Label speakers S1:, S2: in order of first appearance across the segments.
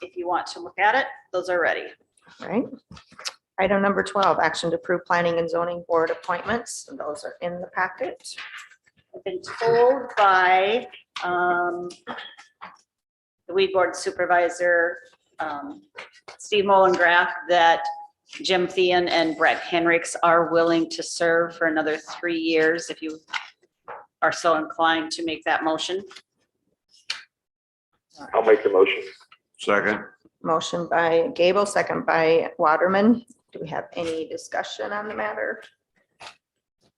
S1: if you want to look at it, those are ready.
S2: right? Item number twelve, action to approve planning and zoning board appointments. Those are in the packet.
S1: I've been told by um, the weed board supervisor, um, Steve Mollengrath, that Jim Thean and Brett Henricks are willing to serve for another three years if you are so inclined to make that motion.
S3: I'll make the motion.
S4: Second.
S2: Motion by Gable, second by Waterman. Do we have any discussion on the matter?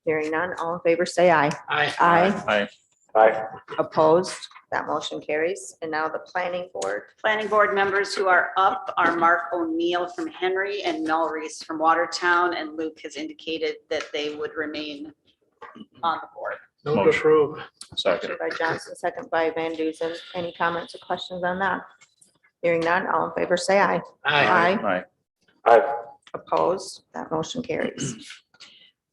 S2: Hearing none, all in favor, say aye.
S5: Aye.
S2: Aye.
S4: Aye.
S3: Aye.
S2: Opposed? That motion carries. And now the planning board.
S1: Planning board members who are up are Mark O'Neill from Henry and Mel Reese from Watertown, and Luke has indicated that they would remain on the board.
S5: Move to
S4: Motion.
S5: approve.
S4: Second.
S2: By Johnson, second by Van Duzen. Any comments or questions on that? Hearing none, all in favor, say aye.
S5: Aye.
S4: Aye.
S3: Aye.
S2: Opposed? That motion carries.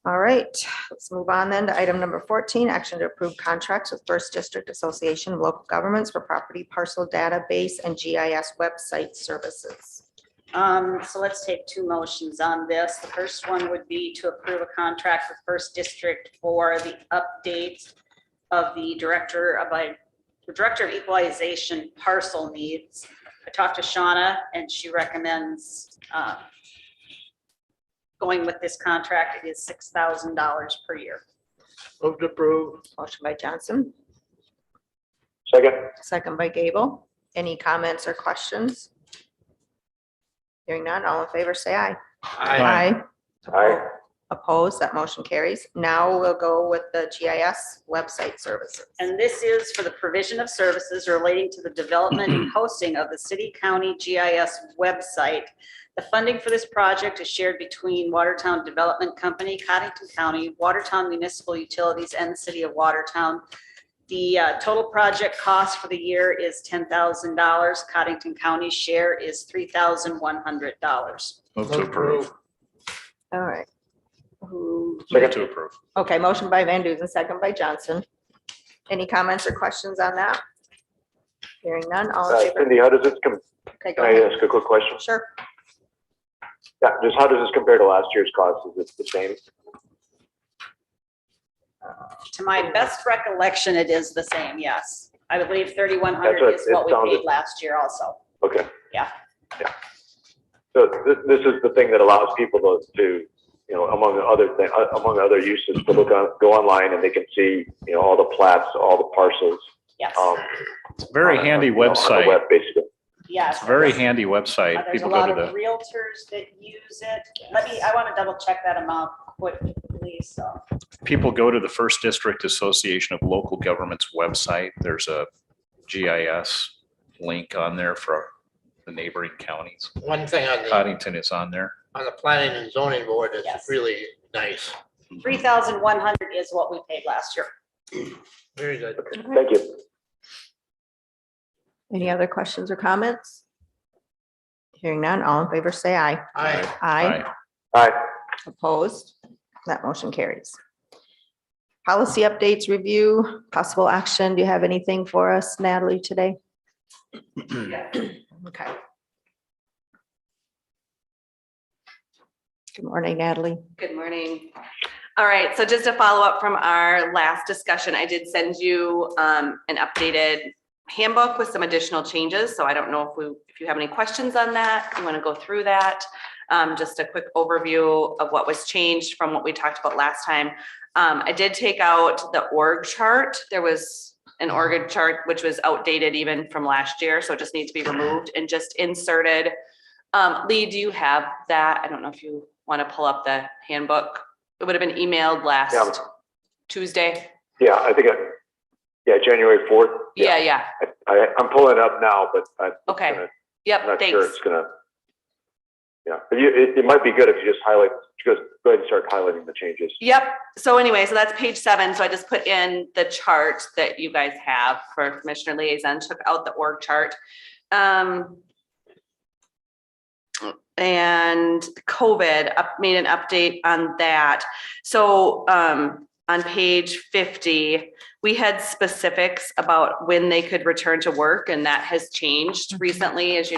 S2: All right, let's move on then to item number fourteen, action to approve contracts with First District Association of Local Governments for property parcel database and GIS website services.
S1: Um, so let's take two motions on this. The first one would be to approve a contract with First District for the update of the Director of, I- the Director of Equalization parcel needs. I talked to Shauna and she recommends, uh, going with this contract. It is six thousand dollars per year.
S5: Move to approve.
S2: Motion by Johnson,
S3: Second.
S2: second by Gable. Any comments or questions? Hearing none, all in favor, say aye.
S5: Aye.
S3: Aye.
S2: Opposed, that motion carries. Now we'll go with the GIS website services.
S1: And this is for the provision of services relating to the development and hosting of the city county GIS website. The funding for this project is shared between Watertown Development Company, Cottington County, Watertown Municipal Utilities, and the City of Watertown. The uh, total project cost for the year is ten thousand dollars. Cottington County's share is three thousand one hundred dollars.
S4: Move to approve.
S2: All right. Who
S4: Move to approve.
S2: Okay, motion by Van Duzen, second by Johnson. Any comments or questions on that? Hearing none, all
S3: Uh,
S2: in favor?
S3: Cindy, how does this, com-
S2: Okay, go
S3: can I
S2: ahead.
S3: ask a quick question?
S2: Sure.
S3: Yeah, just how does this compare to last year's cost? Is it the same?
S1: To my best recollection, it is the same, yes. I believe thirty-one
S3: That's what
S1: hundred is
S3: it
S1: what we
S3: sounded-
S1: paid last year also.
S3: Okay.
S1: Yeah.
S3: Yeah. So this, this is the thing that allows people to, to, you know, among the other, thi- uh, among other uses, to look on, go online and they can see, you know, all the plats, all the parcels.
S1: Yes.
S3: um,
S4: It's a Very
S3: on a-
S4: handy
S3: you know, on the
S4: website.
S3: web, Basically.
S1: Yes.
S4: It's a very
S1: there's-
S4: handy
S1: uh,
S4: website.
S1: There's a
S4: People go
S1: lot
S4: to
S1: of
S4: the,
S1: realtors that use it. Let me, I want to double check that amount quickly, so.
S4: people go to the First District Association of Local Governments website. There's a GIS link on there for the neighboring counties.
S5: One thing on the,
S4: Cottington is on there.
S5: on the planning and zoning board
S1: Yes.
S5: that's really nice.
S1: Three thousand one hundred is what we paid last year.
S5: Very good.
S3: Thank you.
S2: Any other questions or comments? Hearing none, all in favor, say aye.
S5: Aye.
S2: Aye.
S4: Aye.
S3: Aye.
S2: Opposed? That motion carries. Policy updates review, possible action. Do you have anything for us, Natalie, today? Okay. Good morning, Natalie.
S6: Good morning. All right, so just to follow up from our last discussion, I did send you um, an updated handbook with some additional changes, so I don't know if we, if you have any questions on that, you want to go through that. Um, Just a quick overview of what was changed from what we talked about last time. Um, I did take out the org chart. There was an org chart which was outdated even from last year, so it just needs to be removed and just inserted um, Lee, do you have that? I don't know if you want to pull up the handbook. It would have been emailed
S3: Yeah.
S6: last Tuesday.
S3: Yeah, I think, I- yeah, January 4th.
S6: Yeah, yeah.
S3: I- I, I'm pulling it up now, but I-
S6: Okay.
S3: gonna- I'm
S6: Yep,
S3: not sure
S6: thanks.
S3: it's gonna. Yeah, but you, it, it might be good if you just highlight, just go ahead and start highlighting the changes.
S6: Yep. So anyway, so that's page seven. So I just put in the chart that you guys have for commissioner liaison, took out the org chart. Um, and COVID up, made an update on that. So, um, on page fifty, we had specifics about when they could return to work and that has changed recently, as you